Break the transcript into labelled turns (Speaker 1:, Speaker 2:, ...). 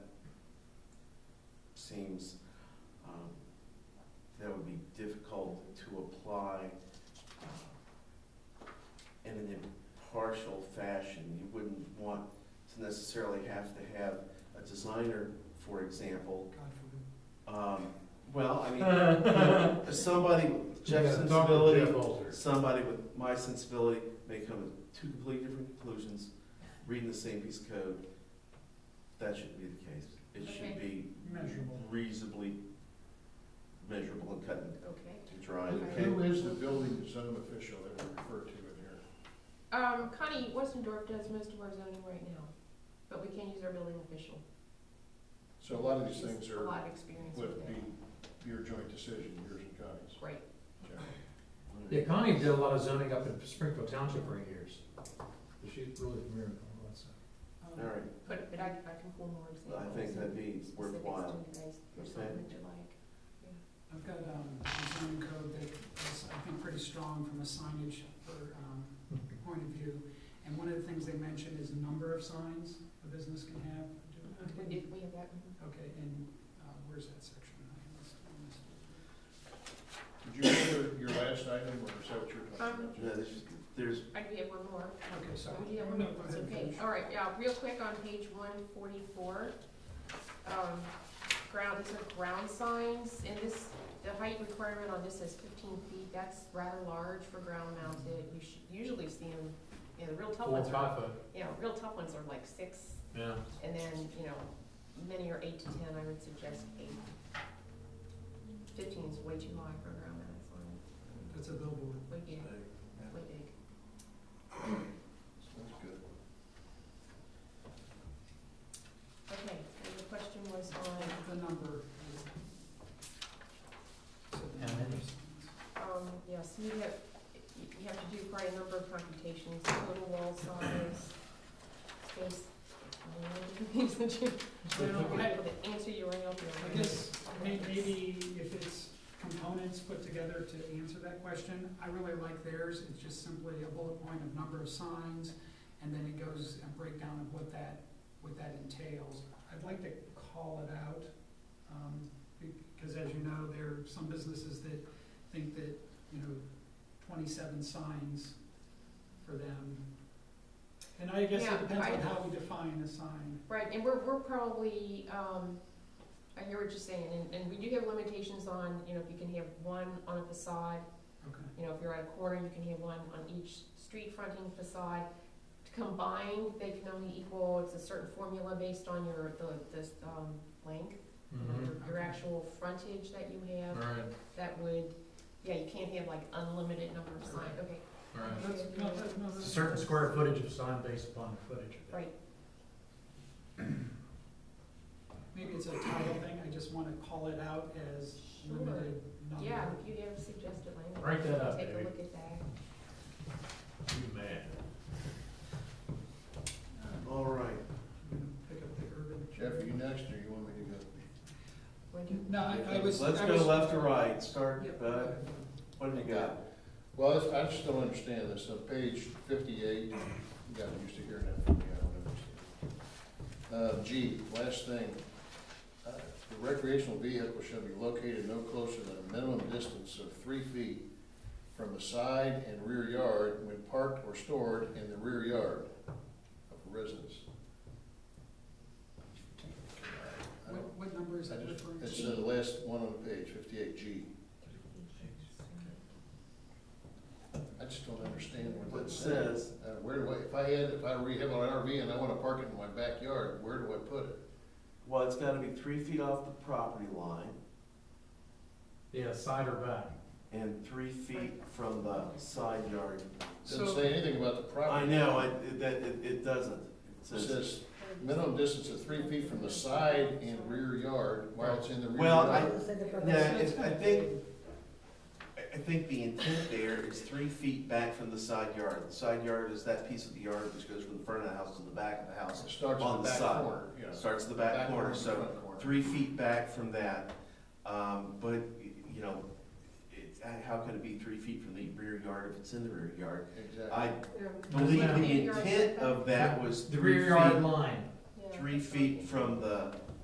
Speaker 1: seems um, that would be difficult to apply uh, in an impartial fashion. You wouldn't want to necessarily have to have a designer, for example.
Speaker 2: God forbid.
Speaker 1: Um, Well, I mean, you know, somebody with Jeff's
Speaker 3: Yeah, talk to
Speaker 1: sensibility
Speaker 3: Jeff Alter.
Speaker 1: somebody with my sensibility may come to two completely different conclusions, reading the same piece of code. That shouldn't be the case. It should be
Speaker 2: Measurable.
Speaker 1: reasonably measurable and cut and
Speaker 4: Okay.
Speaker 1: dry.
Speaker 4: Okay.
Speaker 3: Who is the building zone official that we refer to in here?
Speaker 4: Um, Connie, Westendorf does most of our zoning right now, but we can use our building official.
Speaker 3: So a lot of these things
Speaker 4: She's
Speaker 3: are,
Speaker 4: A lot of experience with
Speaker 3: would
Speaker 4: that.
Speaker 3: be your joint decision, yours and Connie's.
Speaker 4: Great.
Speaker 3: Okay.
Speaker 5: Yeah, Connie did a lot of zoning up in Springfield Township for years. She's really familiar with all that stuff.
Speaker 4: Um,
Speaker 1: All right,
Speaker 4: But, but I, I can pull more
Speaker 1: well, I
Speaker 4: examples.
Speaker 1: think that'd be
Speaker 4: and
Speaker 1: worthwhile.
Speaker 4: specifics to
Speaker 1: Okay.
Speaker 4: you guys, or something that you like.
Speaker 2: I've got, um, a zoning code that is, I think, pretty strong from a signage or, um, point of view. And one of the things they mentioned is number of signs a business can have. Do-
Speaker 4: If we have that, mhm.
Speaker 2: Okay, and, uh, where's that section? I have this on this.
Speaker 3: Did you remember your last item, or is that what you're talking about?
Speaker 1: Yeah,
Speaker 3: Jeff?
Speaker 1: there's- There's,
Speaker 4: I do have one more.
Speaker 2: Okay, sorry.
Speaker 4: Oh, yeah, we're
Speaker 2: No,
Speaker 4: not-
Speaker 2: go
Speaker 4: it's
Speaker 2: ahead,
Speaker 4: okay,
Speaker 2: finish.
Speaker 4: all right, yeah, real quick on page one forty-four. Um, ground, these are ground signs, and this, the height requirement on this is fifteen feet, that's rather large for ground mounted. You should usually see them, you know, the real tough
Speaker 5: Four,
Speaker 4: ones are,
Speaker 5: five foot,
Speaker 4: you know, real tough ones are like six,
Speaker 5: yeah.
Speaker 4: and then, you know, many are eight to ten, I would suggest eight. Fifteen is way too high for a ground mounted sign,
Speaker 2: That's a billboard.
Speaker 4: way big,
Speaker 1: yeah.
Speaker 4: way big.
Speaker 3: That's good.
Speaker 4: Okay, and the question was on
Speaker 2: The number. is- So the
Speaker 5: And
Speaker 2: number
Speaker 5: then-
Speaker 2: of signs.
Speaker 4: Um, yes, you have, you have to do quite a number of computations, total wall size, space.
Speaker 2: Well, I-
Speaker 4: The answer you ran out
Speaker 2: I guess may- maybe if it's components put together to answer that question, I really like theirs, it's just simply a bullet point of number of signs, and then it goes a breakdown of what that, what that entails. I'd like to call it out, um, because as you know, there are some businesses that think that, you know, twenty-seven signs for them. And I guess
Speaker 4: Yeah,
Speaker 2: it depends
Speaker 4: I-
Speaker 2: on how we define a sign.
Speaker 4: Right, and we're, we're probably, um, I hear what you're saying, and, and we do have limitations on, you know, if you can have one on a facade,
Speaker 2: Okay.
Speaker 4: you know, if you're at a corner, you can have one on each street fronting facade. Combined, they can only equal, it's a certain formula based on your, the, this, um, length.
Speaker 5: Mhm.
Speaker 4: your- your actual frontage that you
Speaker 5: All
Speaker 4: have,
Speaker 5: right,
Speaker 4: that would, yeah, you can't have like unlimited number of signs, okay,
Speaker 5: all right.
Speaker 2: That's, no, that- no,
Speaker 5: It's a
Speaker 2: that's-
Speaker 5: certain square footage of sign based upon the footage of it.
Speaker 4: right,
Speaker 2: Maybe it's a title thing, I just wanna call it out as
Speaker 4: Sure.
Speaker 2: limited number.
Speaker 4: yeah, if you have suggested language.
Speaker 5: Write that up,
Speaker 4: Take a
Speaker 5: David.
Speaker 4: look at that.
Speaker 5: You mad.
Speaker 2: Uh,
Speaker 1: all right.
Speaker 2: you know, Pick up the urban.
Speaker 3: Jeff, are you next, or you want me to go?
Speaker 4: Would you-
Speaker 2: No, I, I was.
Speaker 1: Let's
Speaker 2: I
Speaker 1: go
Speaker 2: was-
Speaker 1: left to right, start,
Speaker 2: Yep.
Speaker 1: uh, what do you got?
Speaker 3: Well, that's- I just don't understand this, on page fifty-eight, you got used to hearing that from me, I don't understand. Uh, G, last thing, uh, the recreational vehicle shall be located no closer than a minimum distance of three feet from the side and rear yard when parked or stored in the rear yard of a residence. I
Speaker 2: What,
Speaker 3: don't-
Speaker 2: what number is
Speaker 3: I
Speaker 2: that
Speaker 3: just,
Speaker 2: referring to?
Speaker 3: it's the last one on the page, fifty-eight G. I just don't understand what
Speaker 1: What
Speaker 3: that says.
Speaker 1: says,
Speaker 3: Uh, where do I, if I had, if I rehab an RV and I wanna park it in my backyard, where do I put it?
Speaker 1: well, it's gotta be three feet off the property line
Speaker 5: Yeah, side or back.
Speaker 1: and three feet from the side yard.
Speaker 3: Doesn't
Speaker 2: So,
Speaker 3: say anything about the
Speaker 1: I
Speaker 3: property.
Speaker 1: know, it, it- that, it, it doesn't. It
Speaker 3: It
Speaker 1: says
Speaker 3: says minimum distance of three feet from the side and rear yard while it's in the rear
Speaker 1: Well, I-
Speaker 3: yard.
Speaker 1: Yeah, it's, I think, I, I think the intent there is three feet back from the side yard. The side yard is that piece of the yard which goes from the front of the house to the back of the house.
Speaker 3: It starts in
Speaker 1: on
Speaker 3: the
Speaker 1: the
Speaker 3: back
Speaker 1: side.
Speaker 3: corner, yeah.
Speaker 1: Starts at the back corner, so
Speaker 3: front corner.
Speaker 1: three feet back from that. Um, but, y- you know, it's, uh, how could it be three feet from the rear yard if it's in the rear yard?
Speaker 3: Exactly.
Speaker 1: I believe the
Speaker 4: Rear yard
Speaker 1: intent of that was
Speaker 5: The
Speaker 1: three
Speaker 5: rear yard
Speaker 1: feet,
Speaker 5: line.
Speaker 4: Yeah.
Speaker 1: three feet from the